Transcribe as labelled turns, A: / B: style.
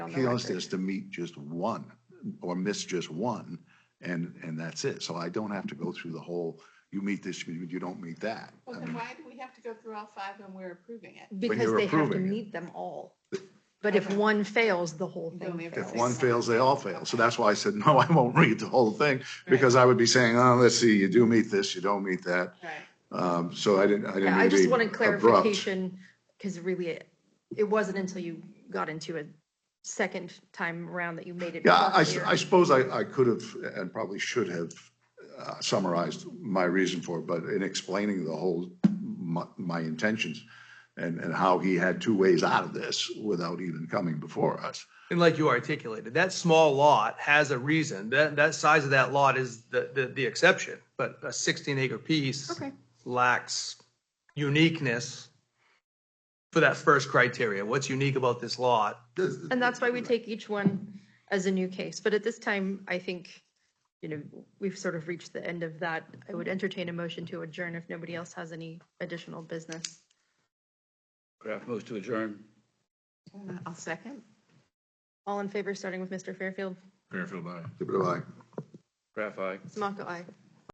A: on the
B: appeals
A: record.
B: is to meet just one or miss just one and, and that's it. So I don't have to go through the whole, you meet this, you you don't meet that.
C: Well,
B: I
C: then
B: mean,
C: why do we have to go through all five when we're approving it?
A: Because
B: you're
A: they have to
B: approving it.
A: meet them all. But if one fails, the whole
C: Then we
A: thing
C: have to
B: If
C: say
B: one
A: fails.
B: fails, they all fail. So that's why I said, no, I won't read the whole thing because I would be saying, oh, let's see, you do meet this, you don't meet that.
C: Right,
B: Um, so I didn't, I didn't.
A: Yeah,
B: mean
A: I
B: to
A: just
B: be
A: wanted
B: abrupt.
A: clarification, because really, it- it wasn't until you got into a second time around that you made it.
B: Yeah, I,
A: clear.
B: I suppose I, I could have and probably should have uh, summarized my reason for it, but in explaining the whole, my, my intentions and, and how he had two ways out of this without even coming before us.
D: And like you articulated, that small lot has a reason. That, that size of that lot is the, the, the exception. But a sixteen acre piece
A: Okay.
D: lacks uniqueness for that first criteria. What's unique about this lot?
A: And that's why we take each one as a new case. But at this time, I think, you know, we've sort of reached the end of that. I would entertain a motion to adjourn if nobody else has any additional business.
E: Kraft moves to adjourn.
C: I'll second.
A: All in favor, starting with Mr. Fairfield?
E: Fairfield, aye.
B: Goodbye.
E: Kraft, aye.
A: Smock, aye.